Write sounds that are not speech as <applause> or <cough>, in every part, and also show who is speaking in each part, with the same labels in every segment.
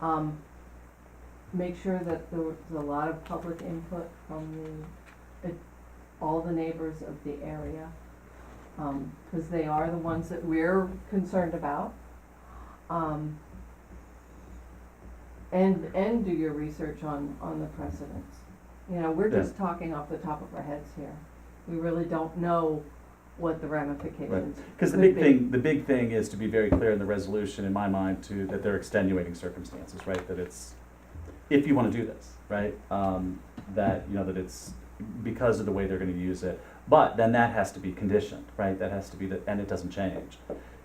Speaker 1: Um, make sure that there was a lot of public input from the, it- all the neighbors of the area. Um, cause they are the ones that we're concerned about. Um, and, and do your research on, on the precedents. You know, we're just talking off the top of our heads here. We really don't know what the ramifications
Speaker 2: Because the
Speaker 1: Could
Speaker 2: big
Speaker 1: be.
Speaker 2: thing, the big thing is to be very clear in the resolution, in my mind, to, that there are extenuating circumstances, right? That it's, if you want to do this, right? Um, that, you know, that it's because of the way they're going to use it. But then that has to be conditioned, right? That has to be, the and it doesn't change.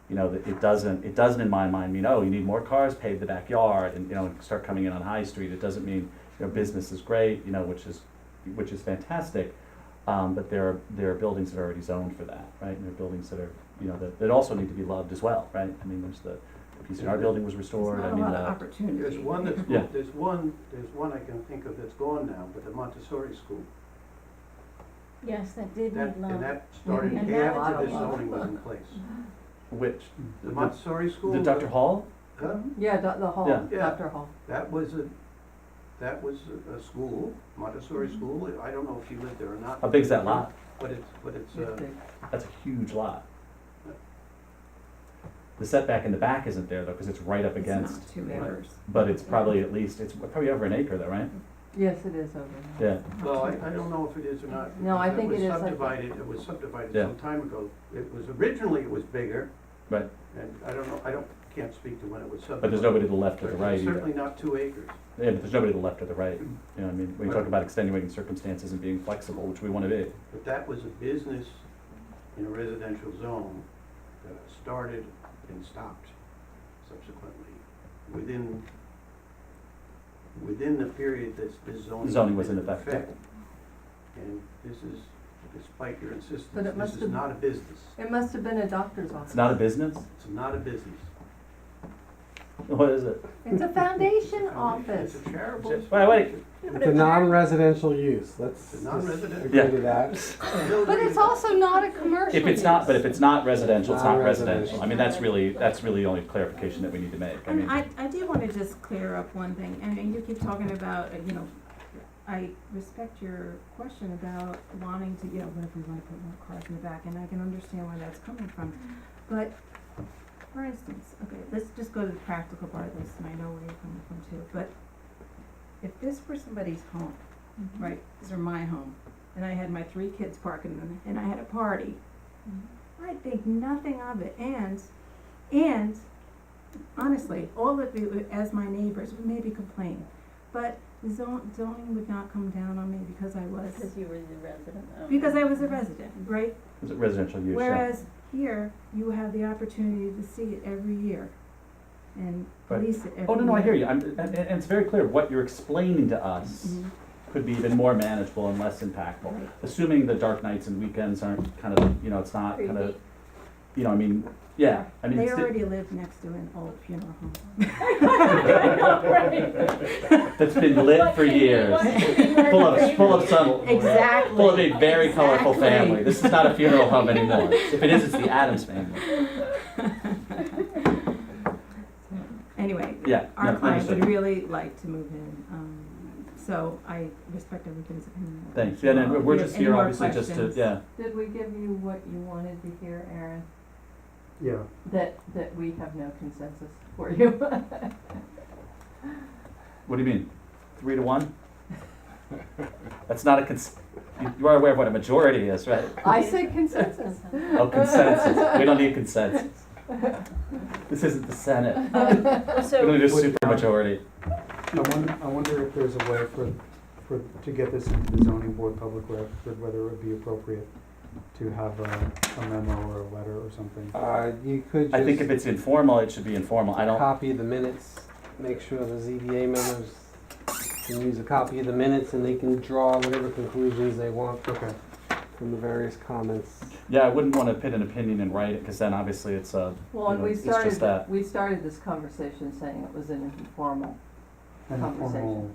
Speaker 2: You know, that it doesn't, it doesn't in my mind mean, oh, you need more cars, pave the backyard and, you know, and start coming in on High Street. It doesn't mean, you know, business is great, you know, which is, which is fantastic. Um, but there are, there are buildings that are already zoned for that, right? And there are buildings that are, you know, that, that also need to be loved as well, right? I mean, there's the PCR building was restored, I mean, the,
Speaker 3: opportunity.
Speaker 4: There's one that's,
Speaker 2: Yeah.
Speaker 4: there's one, there's one I can think of that's gone now, but the Montessori school.
Speaker 5: Yes, that did
Speaker 4: That,
Speaker 5: need
Speaker 4: and
Speaker 5: love.
Speaker 4: that started
Speaker 1: And
Speaker 5: that
Speaker 4: after
Speaker 5: was
Speaker 4: this
Speaker 5: a lot of
Speaker 4: zoning was in
Speaker 5: work.
Speaker 4: place.
Speaker 1: Mm-hmm.
Speaker 2: which,
Speaker 4: The
Speaker 2: The-
Speaker 4: Montessori school.
Speaker 2: the Dr. Hall?
Speaker 4: huh?
Speaker 1: Yeah, Doc- the hall,
Speaker 2: Yeah.
Speaker 4: Yeah.
Speaker 1: Dr. Hall.
Speaker 4: That was a, that was a- a school, Montessori
Speaker 1: Mm-hmm.
Speaker 4: school. I don't know if you lived there or not.
Speaker 2: How big's that lot?
Speaker 4: But it's, but it's,
Speaker 1: It's
Speaker 4: uh,
Speaker 1: big.
Speaker 2: That's a huge lot. The setback in the back isn't there though, because it's right up against,
Speaker 3: Two
Speaker 4: acres.
Speaker 2: but it's probably at least, it's probably over an acre though, right?
Speaker 1: Yes, it is over there.
Speaker 2: Yeah,
Speaker 4: well, I, I don't know if it is or not.
Speaker 1: No, I
Speaker 4: because
Speaker 1: think it is, I
Speaker 4: was
Speaker 1: think-
Speaker 4: subdivided, it was subdivided
Speaker 2: Yeah.
Speaker 4: some time ago. It was, originally it was bigger.
Speaker 2: Right.
Speaker 4: And I don't know, I don't, can't speak to when it was subdivided.
Speaker 2: but there's nobody to the left or the
Speaker 4: But
Speaker 2: right either.
Speaker 4: Certainly not two acres.
Speaker 2: Yeah, but there's nobody to the left or the Mm-hmm. right. You know, what I mean, when you talk about extenuating circumstances and being flexible, which we want to be.
Speaker 4: But that was a business in a residential zone that started and stopped subsequently within, within the period that this zoning.
Speaker 2: Zoning was
Speaker 4: been
Speaker 2: in effect.
Speaker 4: And this is, despite your
Speaker 1: But
Speaker 4: insistence,
Speaker 1: it must
Speaker 4: this is
Speaker 1: have-
Speaker 4: not a business.
Speaker 1: It must have been a doctor's
Speaker 2: It's
Speaker 1: office.
Speaker 2: not a business? <laughs>
Speaker 4: It's not a business.
Speaker 2: What is it?
Speaker 1: It's a foundation
Speaker 4: It's a
Speaker 1: office.
Speaker 4: It's a charitable.
Speaker 2: Wait, wait.
Speaker 4: institution.
Speaker 5: But
Speaker 3: It's a non-residential use, let's
Speaker 4: It's a
Speaker 3: just
Speaker 4: non-resident.
Speaker 2: Yeah.
Speaker 3: agree to that.
Speaker 5: But it's also not a commercial
Speaker 2: If it's not, but if
Speaker 5: use.
Speaker 2: it's not residential, it's not residential.
Speaker 3: Non-residential.
Speaker 2: I mean, that's really, that's really the only clarification that we need to make. I mean,
Speaker 6: And I, I do wanna just clear up one thing, I mean, you keep talking about, uh, you know, I respect your question about wanting to, you know, what if we wanna put more cars in the back, and I can understand where that's coming from. But, for instance, okay, let's just go to the practical part of this, and I know where you're coming from too, but if this were somebody's home, right, these are my home, and I had my three kids parking them, and I had a party, I'd think nothing of it, and, and honestly, all of you, as my neighbors, would maybe complain, but zon- zoning would not come down on me because I was,
Speaker 5: Because you were the resident owner.
Speaker 6: because I was a resident, right?
Speaker 2: is it residential use? Yeah.
Speaker 6: Whereas here, you have the opportunity to see it every year and
Speaker 2: Right.
Speaker 6: lease it every year.
Speaker 2: Oh, no, no, I hear you. I'm, and, and and it's very clear what you're explaining to us
Speaker 6: Mhm.
Speaker 2: could be even more manageable and less impactful.
Speaker 6: Right.
Speaker 2: Assuming the dark nights and weekends aren't kind of, you know, it's not kind of,
Speaker 5: Creepy.
Speaker 2: you know, I mean, yeah, I mean,
Speaker 6: They
Speaker 2: it's di-
Speaker 6: already live next to an old
Speaker 2: <laughs>
Speaker 6: funeral home. <laughs>
Speaker 2: that's been
Speaker 6: <laughs>
Speaker 2: lit for years. Full of, full of sun,
Speaker 6: Exactly.
Speaker 2: full of a very colorful
Speaker 6: Exactly.
Speaker 2: family. This is not a funeral home
Speaker 6: <laughs>
Speaker 2: anymore. If it is, it's the Adams family.
Speaker 6: Anyway,
Speaker 2: Yeah,
Speaker 6: our
Speaker 2: no,
Speaker 6: client
Speaker 2: understood.
Speaker 6: would really like to move in, um, so I respect everybody's opinion. of that.
Speaker 2: Thanks. Yeah, no, we're just
Speaker 6: Any
Speaker 2: here
Speaker 6: more
Speaker 2: obviously just to,
Speaker 6: questions?
Speaker 2: yeah.
Speaker 1: Did we give you what you wanted to hear, Aaron?
Speaker 4: Yeah.
Speaker 1: That, that we have no consensus for you?
Speaker 2: What do you mean? Three to one? <laughs> That's not a cons, you- you are aware of what a majority is, right?
Speaker 1: I said consensus.
Speaker 2: Oh, consensus. We don't need consensus. This isn't the Senate. We
Speaker 5: So,
Speaker 2: don't need a supermajority.
Speaker 3: I wonder, I wonder if there's a way for, for, to get this into the zoning board public record, whether it would be appropriate to have a, a memo or a letter or something.
Speaker 7: Uh, you could
Speaker 2: I think if it's
Speaker 7: just
Speaker 2: informal, it should be informal. I don't,
Speaker 7: copy the minutes, make sure the ZBA members can use a copy of the minutes and they can draw whatever conclusions they want
Speaker 3: Okay,
Speaker 7: from the various comments.
Speaker 2: yeah, I wouldn't want to pin an opinion and write it because then obviously it's a,
Speaker 1: Well, and
Speaker 2: You know,
Speaker 1: we
Speaker 2: it's just
Speaker 1: started,
Speaker 2: that.
Speaker 1: we started this conversation saying it was an informal.
Speaker 3: an
Speaker 5: <laughs>
Speaker 3: informal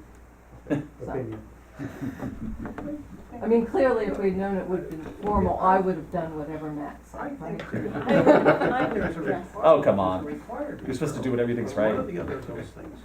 Speaker 3: opinion.
Speaker 1: I mean, clearly, if we'd known it would have been formal, I would have done whatever Matt
Speaker 4: I
Speaker 1: said, right?
Speaker 4: think
Speaker 2: <laughs>
Speaker 4: there's.
Speaker 5: I would- I would
Speaker 4: there's a
Speaker 5: guess.
Speaker 4: requirement-
Speaker 2: Oh, come on.
Speaker 4: there's a requirement.
Speaker 2: you're supposed to do when everything's
Speaker 4: One
Speaker 2: right.
Speaker 4: of the other those things.